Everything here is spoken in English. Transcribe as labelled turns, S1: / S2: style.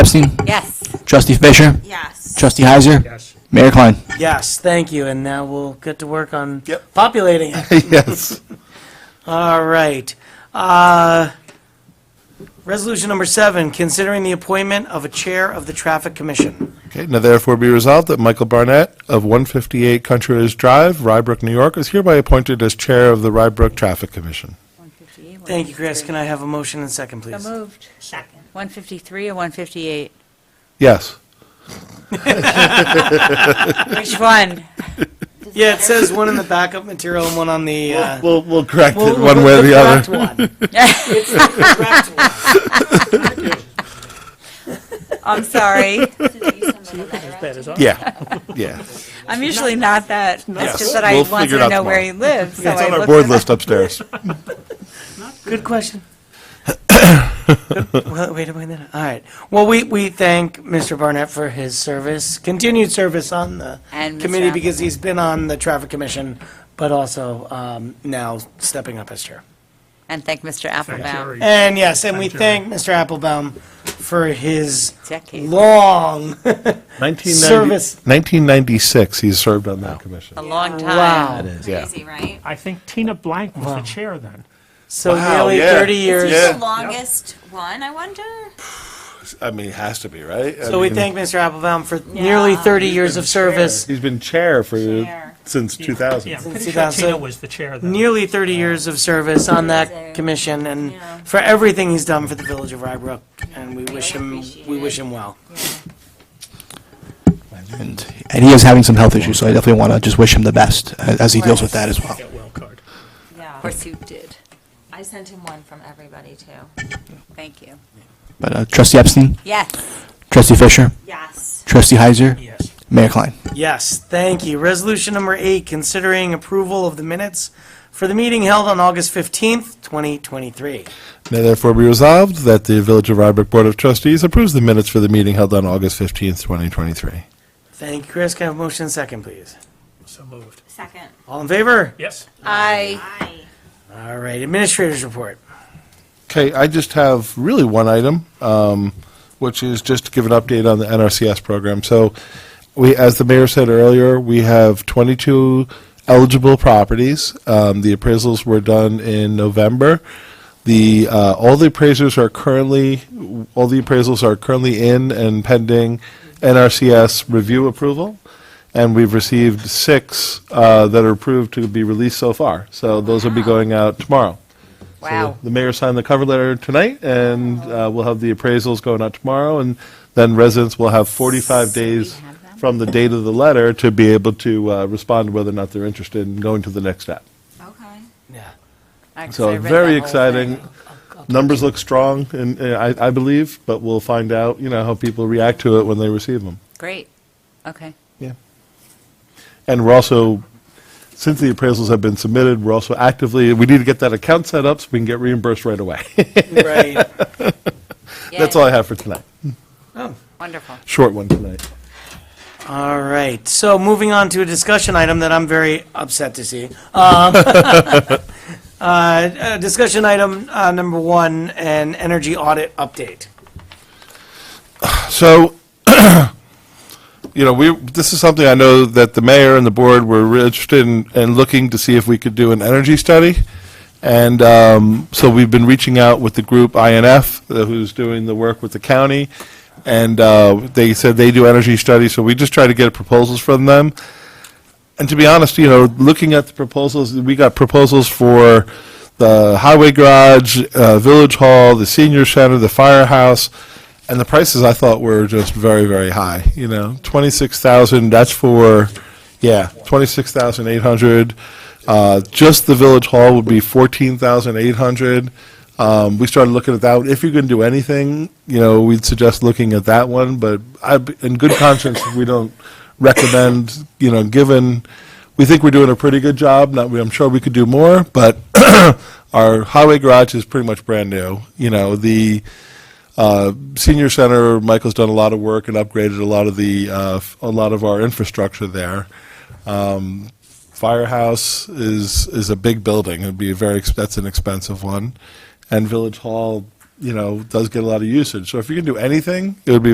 S1: Bernstein?
S2: Yes.
S1: Trustee Fisher?
S2: Yes.
S1: Trustee Heiser?
S3: Yes.
S1: Mayor Klein?
S4: Yes, thank you, and now we'll get to work on
S5: Yep.
S4: populating it.
S5: Yes.
S4: All right. Uh, Resolution number seven, considering the appointment of a chair of the Traffic Commission.
S5: Okay, now therefore be resolved that Michael Barnett of 158 Country Ridge Drive, Rybrook, New York, is hereby appointed as Chair of the Rybrook Traffic Commission.
S4: Thank you, Chris. Can I have a motion and second, please?
S2: So moved. Second. 153 or 158?
S5: Yes.
S2: Which one?
S4: Yeah, it says one in the backup material and one on the, uh,
S5: We'll, we'll correct
S4: we'll-
S5: it one way or the
S4: correct
S5: other.
S4: one. It's the correct one.
S2: I'm sorry.
S5: Yeah, yeah.
S2: I'm usually not that,
S5: Yes,
S2: it's just that I
S5: we'll
S2: want
S5: figure it
S2: to
S5: out
S2: know where he
S5: tomorrow.
S2: lives, so
S5: It's
S2: I
S5: on our
S2: looked.
S5: board list upstairs.
S4: Good question. Good- Well, wait a minute. All right. Well, we, we thank Mr. Barnett for his service, continued service on the
S2: And Mr.
S4: committee because
S2: Appleton.
S4: he's been on the traffic commission, but also um, now stepping up as chair.
S2: And thank Mr. Applebaum.
S4: And yes, and we thank Mr. Applebaum for his
S2: Decade.
S4: long service.
S5: 1996, he's served on that commission.
S2: A long
S4: Wow.
S2: time.
S4: It
S5: Yeah.
S2: Crazy, right?
S3: I think Tina Blank was the chair then.
S4: So
S5: Wow,
S4: nearly
S5: yeah.
S4: 30 years.
S5: Yeah.
S2: The longest one, I wonder?
S5: I mean, it has to be, right? I
S4: So we
S5: mean,
S4: thank Mr. Applebaum for nearly 30 years of service.
S5: He's been chair for,
S2: Chair.
S5: since
S3: Yeah, I'm
S5: 2000.
S3: pretty sure
S4: 2000.
S3: Tina was the chair then.
S4: nearly 30 years of service on
S2: Amazing.
S4: that commission and
S2: Yeah.
S4: for everything he's done for the village of Rybrook, and we wish him,
S2: appreciate
S4: we
S2: it.
S4: wish him well.
S1: And and he is having some health issues, so I definitely want to just wish him the best uh, as he deals with that as well.
S3: That well card.
S6: Yeah,
S2: Of course you did.
S6: I sent him one from everybody too.
S2: Thank you.
S1: But uh, Trustee Epstein?
S2: Yes.
S1: Trustee Fisher?
S6: Yes.
S1: Trustee Heiser?
S3: Yes.
S1: Mayor Klein?
S4: Yes, thank you. Resolution number eight, considering approval of the minutes for the meeting held on August 15th, 2023.
S5: Now therefore be resolved that the Village of Rybrook Board of Trustees approves the minutes for the meeting held on August 15th, 2023.
S4: Thank you, Chris. Can I have a motion and second, please?
S3: So moved.
S6: Second.
S4: All in favor?
S3: Yes.
S2: I,
S6: Aye.
S4: All right, administrators report.
S5: Okay, I just have really one item, um, which is just to give an update on the NRCS program. So, we, as the mayor said earlier, we have 22 eligible properties. Um, the appraisals were done in November. The uh, all the appraisers are currently all the appraisals are currently in and pending NRCS review approval, and we've received six uh, that are approved to be released so far. So those will be going out tomorrow.
S2: wow.
S5: The mayor signed the cover letter tonight, and uh, we'll have the appraisals going out tomorrow, and then residents will have 45 days
S2: have them?
S5: from the date of the letter to be able to uh, respond whether or not they're interested in going to the next step.
S6: Okay.
S4: Yeah.
S2: Actually, I
S5: So
S2: read
S5: very
S2: that whole thing.
S5: exciting. Numbers look strong, and uh, I I believe, but we'll find out, you know, how people react to it when they receive them.
S2: Great. Okay.
S5: Yeah. And we're also, since the appraisals have been submitted, we're also actively, we need to get that account set up so we can get reimbursed right away.
S4: Right.
S5: That's
S2: Yay.
S5: all I have for tonight.
S2: Wonderful.
S5: Short one tonight.
S4: All right, so moving on to a discussion item that I'm very upset to see. Um, uh, uh, Discussion item uh, number one, an energy audit update.
S5: So, you know, we, this is something I know that the mayor and the board were really interested in, in looking to see if we could do an energy study. And um, so we've been reaching out with the group INF, uh, who's doing the work with the county. And uh, they said they do energy studies, so we just try to get proposals from them. And to be honest, you know, looking at the proposals, we got proposals for the highway garage, uh, village hall, the senior center, the firehouse, and the prices I thought were just very, very high, you know, twenty-six thousand, that's for, yeah, twenty-six thousand eight hundred. Uh, just the village hall would be fourteen thousand eight hundred. Um, we started looking at that one. If you can do anything, you know, we'd suggest looking at that one, but I, in good conscience, we don't recommend, you know, given, we think we're doing a pretty good job, not, I'm sure we could do more, but our highway garage is pretty much brand new. You know, the, uh, senior center, Michael's done a lot of work and upgraded a lot of the, uh, f- a lot of our infrastructure there. Um, Firehouse is, is a big building. It'd be a very, ex- that's an expensive one. And Village Hall, you know, does get a lot of usage. So if you can do anything, it would be